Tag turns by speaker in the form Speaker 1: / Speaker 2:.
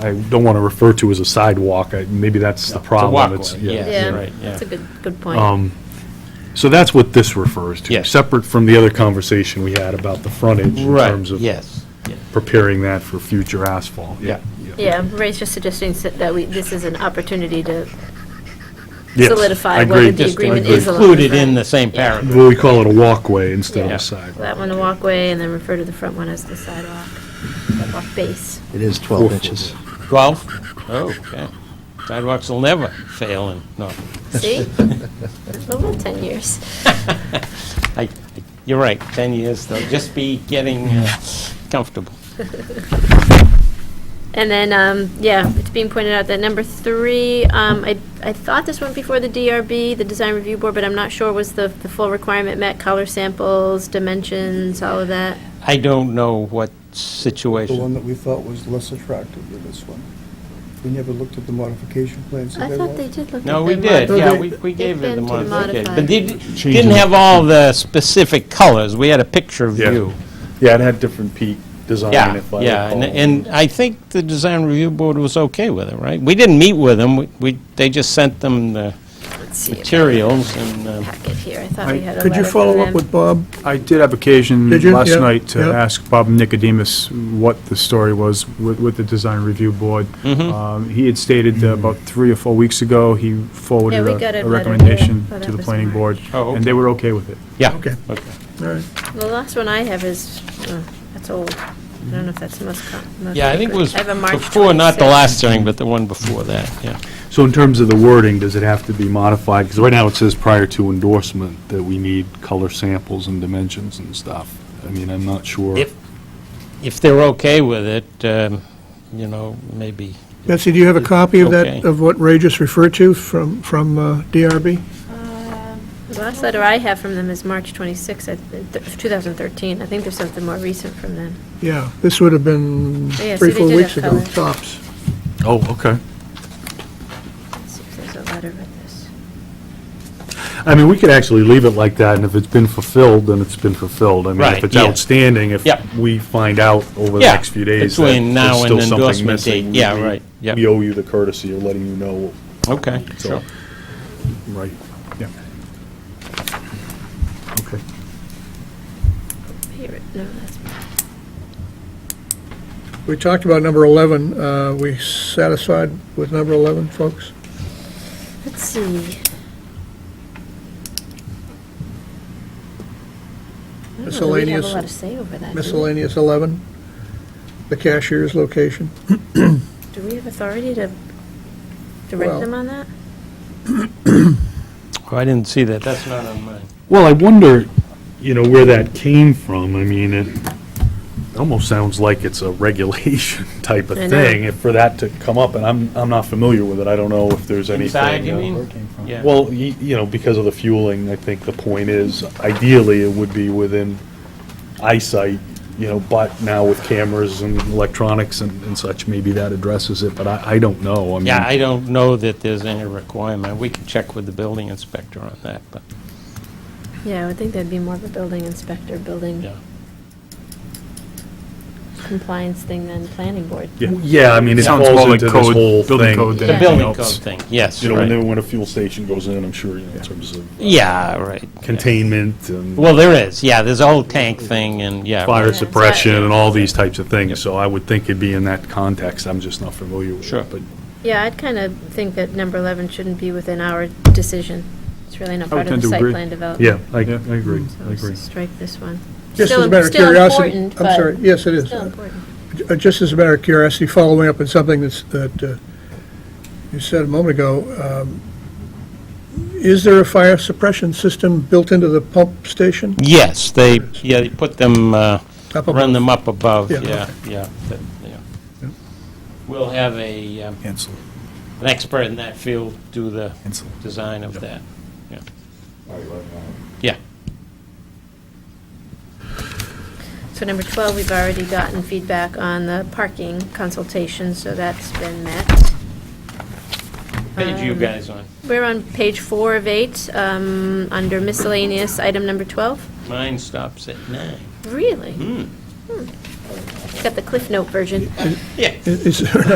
Speaker 1: I don't want to refer to as a sidewalk, I- maybe that's the
Speaker 2: It's a
Speaker 1: problem.
Speaker 2: walkway,
Speaker 3: Yeah.
Speaker 2: Right, yeah.
Speaker 3: That's a good, good
Speaker 4: Um,
Speaker 3: point.
Speaker 1: Um, So that's what this refers to.
Speaker 2: Yes.
Speaker 1: Separate from the other conversation we had about the frontage in terms
Speaker 2: Right,
Speaker 1: of
Speaker 2: yes, yeah,
Speaker 1: preparing that for future asphalt.
Speaker 2: Yeah.
Speaker 3: Yeah, Ray's just suggesting s- that we, this is an opportunity to
Speaker 1: Yes, I
Speaker 3: solidify
Speaker 1: agree.
Speaker 3: whether the
Speaker 1: Just
Speaker 3: agreement
Speaker 1: agree.
Speaker 3: is along the
Speaker 2: included in
Speaker 3: front.
Speaker 2: the same paragraph.
Speaker 1: Well, we call it a walkway instead of
Speaker 2: Yeah.
Speaker 1: a sidewalk.
Speaker 3: That one a walkway, and then refer to the front one as the sidewalk, sidewalk base.
Speaker 5: It is 12 inches.
Speaker 2: 12? Oh, okay. Sidewalks will never fail in Norfolk.
Speaker 3: See? Over 10 years.
Speaker 2: I- I- You're right, 10 years, they'll just be getting uh, comfortable.
Speaker 3: And then, um, yeah, it's being pointed out that number three, um, I, I thought this went before the DRB, the Design Review Board, but I'm not sure was the, the full requirement met, color samples, dimensions, all of that.
Speaker 2: I don't know what
Speaker 6: The one
Speaker 2: situation,
Speaker 6: that we thought was less attractive than this one. We never looked at the modification plans that
Speaker 3: I
Speaker 6: they
Speaker 3: thought they
Speaker 6: want.
Speaker 3: did look at
Speaker 2: no, we
Speaker 3: the
Speaker 2: did,
Speaker 3: mod-
Speaker 2: yeah, we we gave it the
Speaker 3: been to
Speaker 2: modification.
Speaker 3: modify.
Speaker 2: But they di-
Speaker 1: Changing-
Speaker 2: didn't have all the specific colors, we had a picture
Speaker 1: Yeah.
Speaker 2: view.
Speaker 1: Yeah, it had different peak design.
Speaker 2: Yeah,
Speaker 1: if I
Speaker 2: yeah, and-
Speaker 1: recall.
Speaker 2: and I think the Design Review Board was okay with it, right? We didn't meet with them, We- we, they just sent them the
Speaker 3: Let's see if I have
Speaker 2: materials and...
Speaker 3: a
Speaker 2: uh,
Speaker 3: Packet here, I thought we had a
Speaker 4: Could you
Speaker 3: letter from
Speaker 4: follow up
Speaker 3: them.
Speaker 4: with Bob?
Speaker 7: I did have occasion
Speaker 4: Did you?
Speaker 7: last
Speaker 4: Yeah,
Speaker 7: night to
Speaker 4: yeah.
Speaker 7: ask Bob Nicodemus what the story was with, with the design review board. Um, He had stated that about three or four weeks ago, he forwarded
Speaker 3: we got a
Speaker 7: a-
Speaker 3: letter,
Speaker 7: a recommendation
Speaker 3: yeah, but
Speaker 7: to
Speaker 3: that
Speaker 7: the
Speaker 3: was
Speaker 7: planning board,
Speaker 2: March. Oh,
Speaker 7: and they were okay with it.
Speaker 2: Yeah.
Speaker 4: Okay. All right.
Speaker 3: The last one I have is, oh, that's old. I don't know if that's the most. com- most
Speaker 2: Yeah, I think it was
Speaker 3: I have a March
Speaker 2: before, not the
Speaker 3: 26.
Speaker 2: last hearing, but the one before that, yeah.
Speaker 1: So in terms of the wording, does it have to be modified? Because right now it says prior to endorsement that we need color samples and dimensions and stuff. I mean, I'm not sure.
Speaker 2: If- If they're okay with it, um, you know, maybe,
Speaker 4: Betsy, do you have a copy of that,
Speaker 2: Okay.
Speaker 4: of what Ray just referred to from, from uh, DRB?
Speaker 3: Uh, The last letter I have from them is March 26, I th- th- 2013. I think there's something more recent from them.
Speaker 4: Yeah, this would have been
Speaker 3: Oh, Yeah, see,
Speaker 4: three,
Speaker 3: they
Speaker 4: four
Speaker 3: did
Speaker 4: weeks
Speaker 3: have
Speaker 4: ago,
Speaker 3: color.
Speaker 4: tops.
Speaker 1: Oh, okay.
Speaker 3: Let's see if there's a letter with this.
Speaker 1: I mean, we could actually leave it like that, and if it's been fulfilled, then it's been fulfilled. I mean,
Speaker 2: Right,
Speaker 1: if it's
Speaker 2: yeah.
Speaker 1: outstanding, if
Speaker 2: Yep.
Speaker 1: we find out over the
Speaker 2: Yeah,
Speaker 1: next few days that
Speaker 2: between now
Speaker 1: there's
Speaker 2: and
Speaker 1: still something
Speaker 2: endorsement
Speaker 1: missing.
Speaker 2: date.
Speaker 1: we-
Speaker 2: Yeah,
Speaker 1: we-
Speaker 2: right, yep.
Speaker 1: We owe you the courtesy of letting you know,
Speaker 2: okay, sure.
Speaker 1: so, right.
Speaker 7: Yeah.
Speaker 1: Okay.
Speaker 3: Here, it- no, that's,
Speaker 4: We talked about number 11. Uh, We satisfied with number 11, folks?
Speaker 3: let's see. I don't know that We have a
Speaker 4: Miscellaneous-
Speaker 3: lot to say over that. do we?
Speaker 4: Miscellaneous 11, the cashier's location.
Speaker 3: Do we have authority to direct
Speaker 4: Well-
Speaker 3: them on that?
Speaker 2: Oh, I didn't see that, that's not on mine.
Speaker 1: Well, I wonder, you know, where that came from. I mean, it almost sounds like it's a regulation type of
Speaker 3: I know.
Speaker 1: thing, if for that to come up, and I'm, I'm not familiar with it. I don't know if there's anything.
Speaker 2: Inside, you
Speaker 1: uh,
Speaker 2: mean? Yeah.
Speaker 1: Well, y- you know, because of the fueling, I think the point is ideally it would be within eyesight, you know, but now with cameras and electronics and and such, maybe that addresses it, but I, I don't know. I mean,
Speaker 2: Yeah, I don't know that there's any requirement, we can check with the building inspector on that, but,
Speaker 3: Yeah, I would think that'd be more of a building inspector, building
Speaker 2: yeah.
Speaker 3: compliance thing than planning board.
Speaker 1: Yeah, Yeah, I mean, it
Speaker 7: Sounds more
Speaker 1: falls
Speaker 7: like
Speaker 1: into this
Speaker 7: code-
Speaker 1: whole
Speaker 7: building
Speaker 1: thing.
Speaker 7: code than
Speaker 3: Yeah.
Speaker 2: The
Speaker 7: anything
Speaker 2: building code
Speaker 7: else.
Speaker 2: thing, yes,
Speaker 1: You know, when they-
Speaker 2: right.
Speaker 1: when a fuel station goes in, I'm sure, you know, in terms of uh,
Speaker 2: Yeah, right.
Speaker 1: containment and
Speaker 2: Well, there is, yeah, there's a whole tank thing and, yeah. right.
Speaker 1: fire
Speaker 3: that's
Speaker 1: suppression
Speaker 3: right.
Speaker 1: and all these types of
Speaker 2: Yep.
Speaker 1: things, so I would think it'd be in that context. I'm just not familiar with it.
Speaker 2: Sure.
Speaker 1: But
Speaker 3: Yeah, I'd kind of think that number 11 shouldn't be within our decision. It's really not
Speaker 7: I
Speaker 3: part
Speaker 7: would
Speaker 3: of
Speaker 7: tend
Speaker 3: the
Speaker 7: to
Speaker 3: site
Speaker 7: agree.
Speaker 3: plan development.
Speaker 1: Yeah, I I
Speaker 7: Yeah.
Speaker 1: agree,
Speaker 3: So
Speaker 1: I
Speaker 3: let's
Speaker 1: agree.
Speaker 3: just strike this one.
Speaker 4: Just as
Speaker 3: Still-
Speaker 4: a matter of
Speaker 3: still
Speaker 4: curiosity.
Speaker 3: important,
Speaker 4: I'm
Speaker 3: but
Speaker 4: sorry, yes, it is.
Speaker 3: Still important.
Speaker 4: Uh, Just as a matter of curiosity, following up on something that's, that uh, you said a moment ago, um, is there a fire suppression system built into the pump station?
Speaker 2: Yes, they, yeah, they put them, uh,
Speaker 4: Up above?
Speaker 2: run them up above,
Speaker 4: Yeah,
Speaker 2: yeah, yeah, that- yeah. We'll have a, um,
Speaker 7: Ansel,
Speaker 2: an expert in that field do the
Speaker 7: Ansel.
Speaker 2: design of that, yeah. Yeah,
Speaker 3: So number 12, we've already gotten feedback on the parking consultation, so that's been met.
Speaker 2: page you
Speaker 3: Um,
Speaker 2: guys on.
Speaker 3: We're on page four of eight, um, under miscellaneous, item number 12.
Speaker 2: Mine stops at nine.
Speaker 3: Really?
Speaker 2: Hmm.
Speaker 3: Got the Cliff Note version.
Speaker 2: Yeah.
Speaker 4: Is- Is there